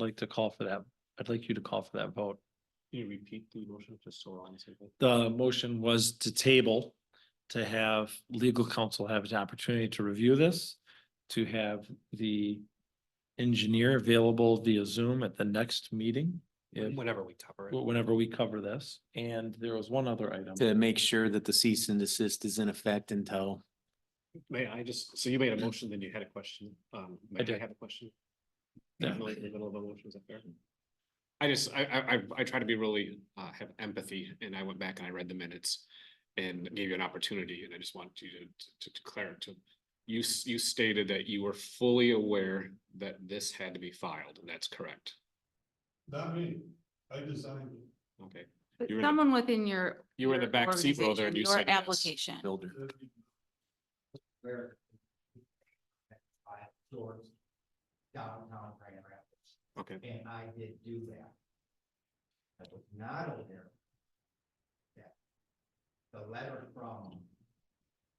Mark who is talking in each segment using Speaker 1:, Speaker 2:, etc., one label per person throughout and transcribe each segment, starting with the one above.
Speaker 1: like to call for that, I'd like you to call for that vote.
Speaker 2: Can you repeat the motion just so we're on the same page?
Speaker 1: The motion was to table, to have legal counsel have an opportunity to review this, to have the engineer available via Zoom at the next meeting, if,
Speaker 2: Whenever we cover it.
Speaker 1: whenever we cover this. And there was one other item.
Speaker 3: to make sure that the cease and desist is in effect until,
Speaker 2: May I just, so you made a motion, then you had a question. Um, may I
Speaker 1: did.
Speaker 2: have a question?
Speaker 1: Yeah.
Speaker 2: Definitely in the middle of a motion, is that fair? I just, I, I, I- I try to be really, uh, have empathy and I went back and I read the minutes and gave you an opportunity and I just wanted you to, to declare to, you, s- you stated that you were fully aware that this had to be filed and that's correct.
Speaker 4: Not me, I designed it.
Speaker 2: Okay,
Speaker 5: But
Speaker 2: You were in the-
Speaker 5: someone within your.
Speaker 2: you were in the
Speaker 5: your
Speaker 2: back seat, Will, there, and
Speaker 5: organization,
Speaker 2: you
Speaker 5: your
Speaker 2: said yes.
Speaker 5: Application.
Speaker 3: builder.
Speaker 6: where I have stores downtown Grand Rapids,
Speaker 2: okay.
Speaker 6: and I did do that. I was not aware that the letter from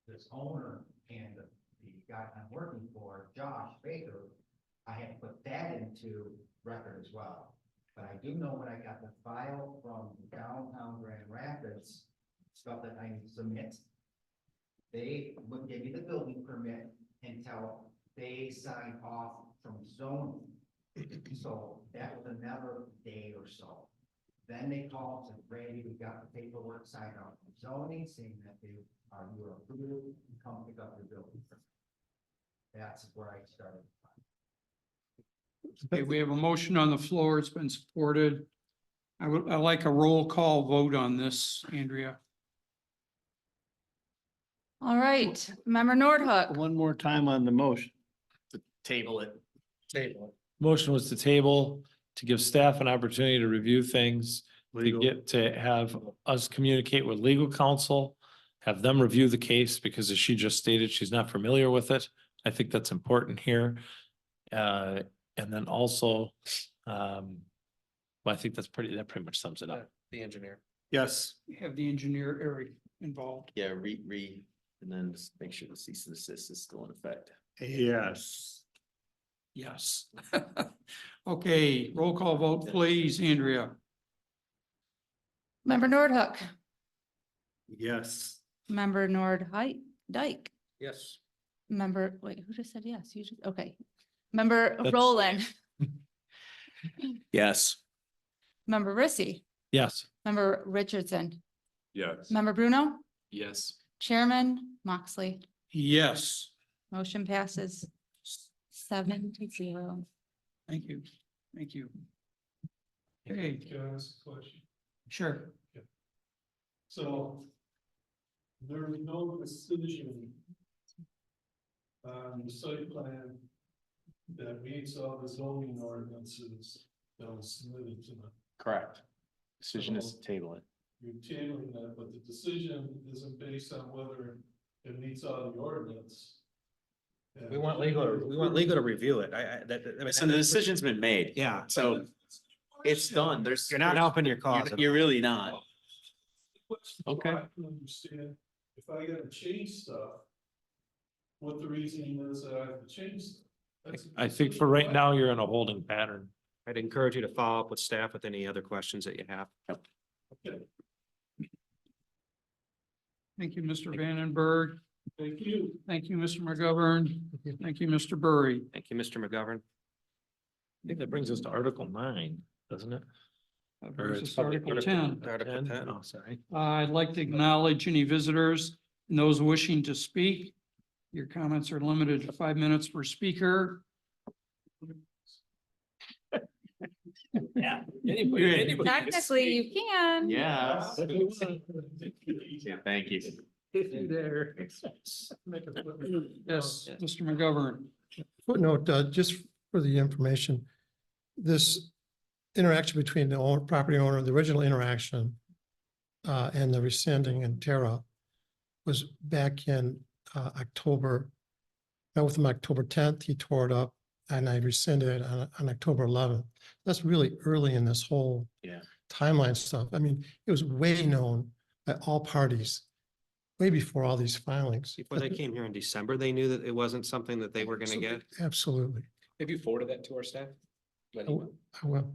Speaker 6: this owner and the the guy I'm working for, Josh Baker, I had put that into record as well. But I do know when I got the file from downtown Grand Rapids, stuff that I submit, they wouldn't give me the building permit until they signed off from zoning. So that was another day or so. Then they called and said, Randy, we got the paperwork signed off from zoning saying that they are, you are approved, come pick up your building. permit." That's where I started.
Speaker 7: Okay, we have a motion on the floor. It's been supported. I would, I like a roll call vote on this, Andrea.
Speaker 5: All right, member Nordhook,
Speaker 8: One more time on the motion.
Speaker 3: Table it.
Speaker 1: Motion was to table, to give staff an opportunity to review things, to
Speaker 8: Legal.
Speaker 1: get, to have us communicate with legal counsel, have them review the case, because as she just stated, she's not familiar with it. I think that's important here. Uh, and then also, um, well, I think that's pretty, that pretty much sums it up.
Speaker 2: The engineer.
Speaker 8: Yes.
Speaker 7: Have the engineer Eric involved.
Speaker 3: Yeah, re, re, and then just make sure the cease and desist is still in effect.
Speaker 8: Yes.
Speaker 7: Yes. Okay, roll call vote, please, Andrea.
Speaker 5: member Nordhook,
Speaker 8: Yes.
Speaker 5: member Nord Dyke,
Speaker 7: Yes.
Speaker 5: member, wait, who just said yes? You just, okay. Member
Speaker 1: That's-
Speaker 5: Roland,
Speaker 3: Yes.
Speaker 5: member Rissy,
Speaker 1: Yes.
Speaker 5: member Richardson,
Speaker 4: Yes.
Speaker 5: member Bruno,
Speaker 2: Yes.
Speaker 5: chairman Moxley.
Speaker 7: Yes,
Speaker 5: Motion passes seven to zero.
Speaker 7: thank you, thank you. Okay,
Speaker 4: Can I ask a question?
Speaker 7: sure.
Speaker 4: So there's no decision on the site plan that meets all the zoning ordinances that was submitted to them.
Speaker 3: Correct. Decision is to table it.
Speaker 4: You're tabling that, but the decision isn't based on whether it meets all the ordinance.
Speaker 9: We want legal, we want legal to review it. I, I, that, that- I mean,
Speaker 3: So the decision's been made.
Speaker 9: yeah,
Speaker 3: So it's done. There's.
Speaker 9: you're not helping your cause.
Speaker 3: You're- You're really not.
Speaker 1: Okay.
Speaker 4: I can understand if I gotta change stuff, what the reasoning is that I have to change. stuff. That's-
Speaker 1: I think for right now, you're in a holding pattern.
Speaker 9: I'd encourage you to follow up with staff with any other questions that you have.
Speaker 7: Thank you, Mr. Vandenberg.
Speaker 4: Thank you.
Speaker 7: Thank you, Mr. McGovern. Thank you, Mr. Burry.
Speaker 9: Thank you, Mr. McGovern.
Speaker 1: I think that brings us to Article nine, doesn't it?
Speaker 7: That
Speaker 1: Or
Speaker 7: brings us
Speaker 1: it's
Speaker 7: to Article ten.
Speaker 9: Article 10.
Speaker 1: Oh, sorry.
Speaker 7: Uh, I'd like to acknowledge any visitors and those wishing to speak. Your comments are limited to five minutes per speaker.
Speaker 1: Yeah.
Speaker 7: Good.
Speaker 5: Technically, you can.
Speaker 3: Yeah.
Speaker 4: If you want.
Speaker 3: Yeah, thank you.
Speaker 7: There.
Speaker 4: Make a flip.
Speaker 7: Yes, Mr. McGovern.
Speaker 10: footnote, uh, just for the information, this interaction between the own, property owner, the original interaction uh, and the rescinding and tear up was back in, uh, October. That was on October tenth, he tore it up and I rescinded it on, on October eleventh. That's really early in this whole
Speaker 3: Yeah.
Speaker 10: timeline stuff. I mean, it was way known by all parties, way before all these filings.
Speaker 9: Before they came here in December, they knew that it wasn't something that they were gonna get.
Speaker 10: Absolutely.
Speaker 2: Have you forwarded that to our staff?
Speaker 3: Oh.
Speaker 10: I will.